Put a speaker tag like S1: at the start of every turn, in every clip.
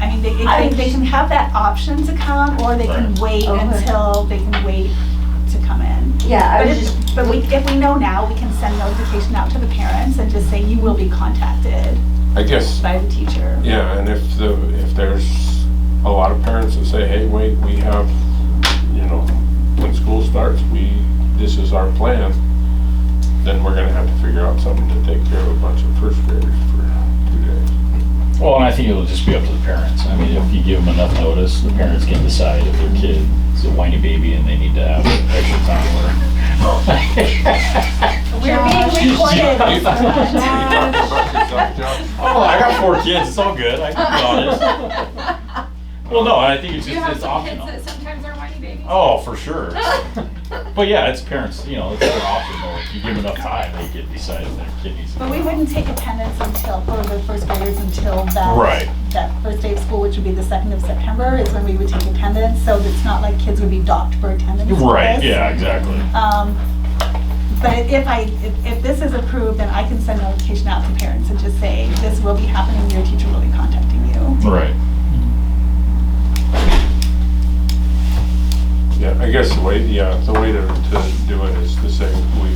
S1: I mean, they can have that option to come, or they can
S2: Right.
S1: wait
S3: Okay.
S1: until, they can wait to come in.
S3: Yeah, I
S1: But
S3: was just,
S1: if, but we, if we know now, we can send notification out to the parents and just say, you will be contacted
S2: I guess,
S1: by the teacher.
S2: yeah, and if the, if there's a lot of parents that say, hey, wait, we have, you know, when school starts, we, this is our plan, then we're gonna have to figure out something to take care of a bunch of first graders for two days.
S4: Well, and I think it'll just be up to the parents. I mean, if you give them enough notice, the parents can decide if their kid is a whiny baby and they need to have extra time or.
S1: We're being recorded.
S2: You-
S5: Oh
S2: you talk about yourself, Josh?
S4: Oh, I got four kids, it's all good, I can be honest. Well, no, I think it's
S6: Do you
S4: just,
S6: have
S4: it's
S6: some kids
S4: optional.
S6: that sometimes are whiny babies?
S4: Oh, for sure. But yeah, it's parents, you know, it's their option, though. If you give them enough time, they get decide if their kid needs. to
S1: But we
S4: go.
S1: wouldn't take attendance until, for the first graders until that.
S4: Right.
S1: That first day of school, which would be the second of September, is when we would take attendance, so it's not like kids would be docked for attendance. for
S4: Right,
S1: this.
S4: yeah, exactly.
S1: Um, But if I, if- if this is approved, then I can send notification out to parents and just say, this will be happening, your teacher will be contacting you.
S4: Right.
S2: Yeah, I guess the way, yeah, the way to, to do it is to say, we,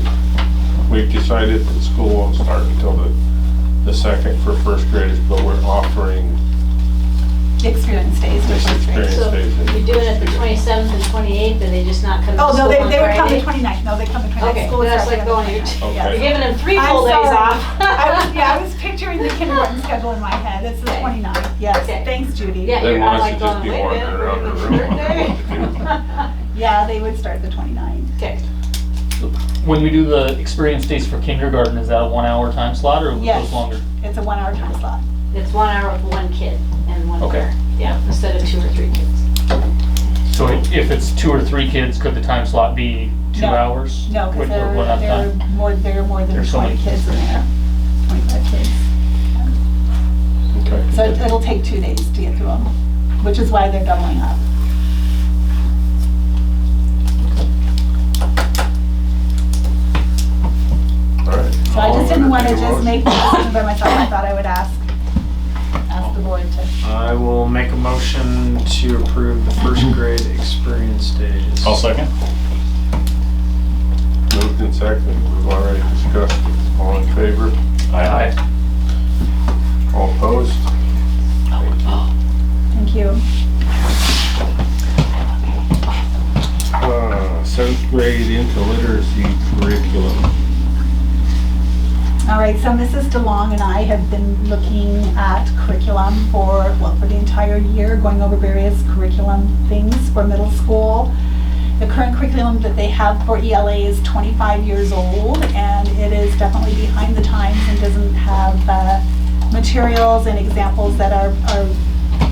S2: we've decided that school won't start until the, the second for first graders, but we're offering
S1: The Experience days with
S2: this
S1: first grade.
S2: experience
S5: So
S2: days. in
S5: you're doing it the
S2: first grade.
S5: twenty-seventh and twenty-eighth, and they just not come
S1: Oh, no,
S5: to school
S1: they,
S5: on
S1: they would come the
S5: Friday?
S1: 29th, no, they come the 29th.
S5: Okay,
S1: School would
S5: that's
S1: start
S5: like
S1: the
S5: going to your
S1: 29th, yeah.
S2: Okay.
S5: You're giving them three
S1: I'm
S5: full days
S1: sorry.
S5: off.
S1: I was, yeah, I was picturing the kindergarten schedule in my head, it's the
S5: Okay.
S1: 29th, yes,
S5: Okay.
S1: thanks Judy.
S5: Yeah,
S2: Then
S5: you're
S2: why
S5: all
S2: don't
S5: like going,
S2: you just be
S5: wait a
S2: wandering
S5: minute,
S2: around
S5: we're
S2: the
S5: gonna
S2: room.
S5: do birthday.
S1: Yeah, they would start the 29th.
S5: Okay.
S7: When we do the experience days for kindergarten, is that a one-hour time slot or
S1: Yes.
S7: goes longer?
S1: It's a one-hour time slot.
S5: It's one hour with one kid and one
S7: Okay.
S5: parent, yeah, instead of two or three kids.
S7: So i- if it's two or three kids, could the time slot be two
S1: No.
S7: hours?
S1: No, because
S7: Would- would
S1: there,
S7: one have
S1: there are
S7: time?
S1: more, there are more than
S7: uh, There's so
S1: twenty
S7: many
S1: kids
S7: kids.
S1: in there, twenty-five kids.
S2: Okay.
S1: So it- it'll take two days to get through them, which is why they're doubling up.
S2: All right.
S1: So I just didn't
S2: I'll
S1: want to
S2: entertain a
S1: just
S2: motion.
S1: make the decision by myself, I thought I would ask, ask the board to.
S8: I will make a motion to approve the first grade experience days.
S4: I'll second.
S2: Moved and seconded, we've already discussed it. All in favor?
S4: Aye.
S2: All opposed?
S1: Thank you.
S2: Uh, Seventh grade into literacy curriculum.
S1: All right, so Mrs. DeLong and I have been looking at curriculum for, well, for the entire year, going over various curriculum things for middle school. The current curriculum that they have for ELA is 25 years old, and it is definitely behind the times and doesn't have uh, materials and examples that are are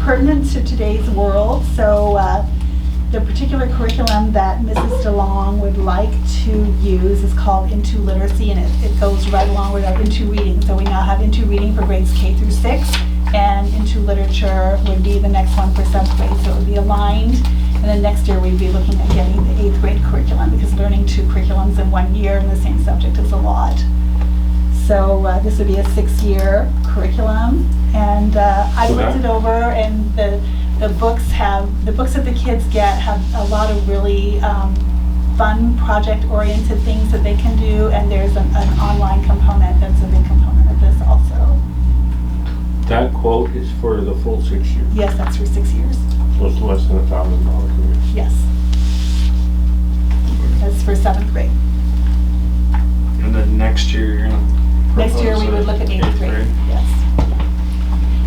S1: pertinent to today's world. So uh, the particular curriculum that Mrs. DeLong would like to use is called Into Literacy, and it, it goes right along with our Into Reading. So we now have Into Reading for grades K through six, and Into Literature would be the next one for seventh grade, so it would be aligned. And then next year, we'd be looking at getting the eighth grade curriculum, because learning two curriculums in one year in the same subject is a lot. So uh, this would be a six-year curriculum, and uh, I
S2: So
S1: looked
S2: that-
S1: it over, and the, the books have, the books that the kids get have a lot of really um, fun, project-oriented things that they can do, and there's an, an online component that's a big component of this also.
S2: That quote is for the full six years.
S1: Yes, that's for six years,
S2: Was less than a thousand dollars a year.
S1: yes. That's for seventh grade.
S8: And then next year, you're gonna.
S1: Next year, we would look at eighth grade, yes.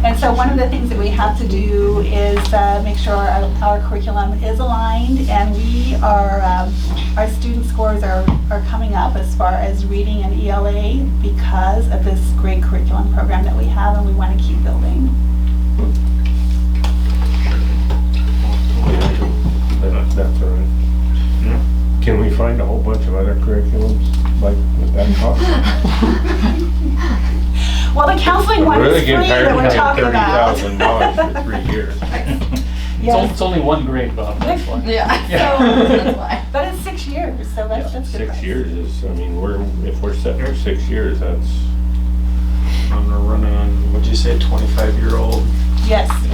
S1: And so one of the things that we have to do is uh, make sure our our curriculum is aligned, and we are, um, our student scores are, are coming up as far as reading and ELA because of this great curriculum program that we have, and we want to keep building.
S2: Oh, That- That's all right.
S8: Yeah.
S2: Can we find a whole bunch of other curriculums like with that cost?
S1: Well, the counseling
S2: I'm
S1: one is
S2: really
S1: free
S2: getting tired
S1: that
S2: of
S1: we're talking about.
S2: Thirty thousand dollars for three years.
S7: It's on-
S1: Yes,
S7: It's only one grade, Bob, that's why.
S6: Yeah.
S7: Yeah.
S6: So, that's why.
S1: but it's six years, so that's, that's good.
S2: Six
S1: price.
S2: years is, I mean, we're, if we're setting for six years, that's.
S8: I'm gonna run on, what'd you say, twenty-five year old?
S1: Yes.